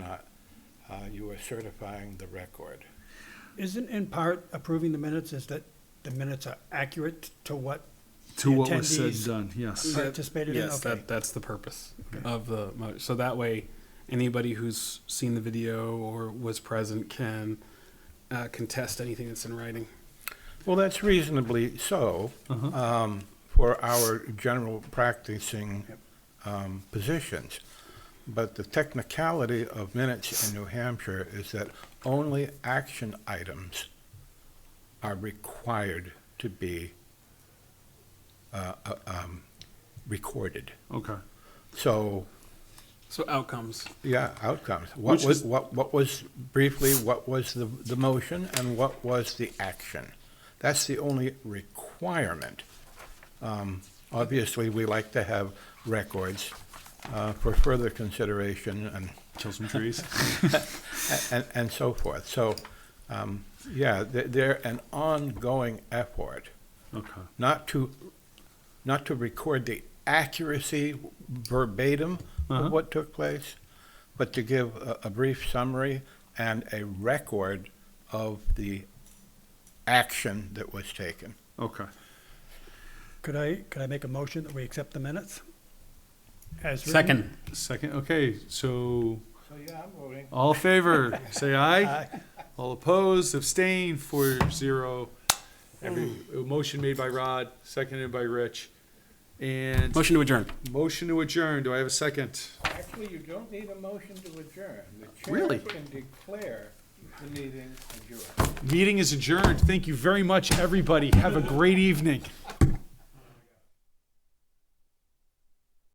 uh, you are certifying the record. Isn't in part approving the minutes is that the minutes are accurate to what To what was said, Attendees. done, yes. participated in? Yes, Okay. that, that's the purpose of the mo- so that way anybody who's seen the video or was present can uh, contest anything that's in writing. Well, that's reasonably so um, for our general practicing um, positions. But the technicality of minutes in New Hampshire is that only action items are required to be uh, uh, um, recorded. Okay. So, So outcomes. yeah, outcomes. What Which was, is- what, what was, briefly, what was the, the motion and what was the action? That's the only requirement. Um, Obviously, we like to have records uh, for further consideration and, Kill some trees. and, and so forth. So, um, yeah, they're, they're an ongoing effort, Okay. not to, not to record the accuracy verbatim Uh-huh. of what took place, but to give a, a brief summary and a record of the action that was taken. Okay. Could I, could I make a motion that we accept the minutes? As written? Second. Second, okay, so So, yeah, I'm voting. all in favor, say aye. All opposed, abstain, four zero. Every, a motion made by Rod, seconded by Rich. And Motion to adjourn. motion to adjourn, do I have a second? Actually, you don't need a motion to adjourn. The chair Really? can declare the meeting adjourned. Meeting is adjourned, thank you very much, everybody, have a great evening.